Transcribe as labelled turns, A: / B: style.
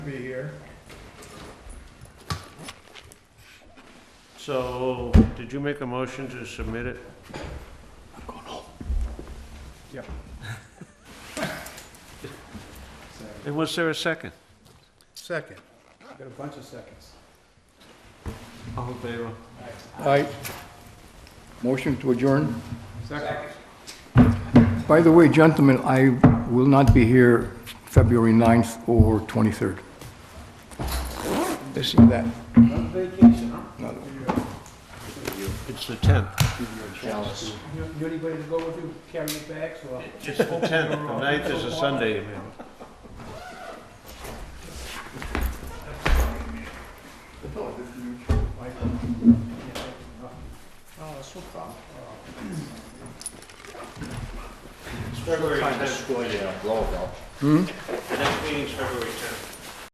A: be here. So, did you make a motion to submit it? I'm going home. Yeah. And was there a second?
B: Second.
C: Got a bunch of seconds.
A: All in favor?
D: Aye. Motion to adjourn.
C: Second.
D: By the way, gentlemen, I will not be here February 9th or 23rd. Missing that.
C: On vacation, huh?
A: It's the tenth.
C: Alice. You, you anybody to go with you, carry your bags, or?
A: It's the tenth. The ninth is a Sunday, you mean.
C: Oh, that's no problem.
A: Hmm? It's February tenth. The next meeting's February tenth.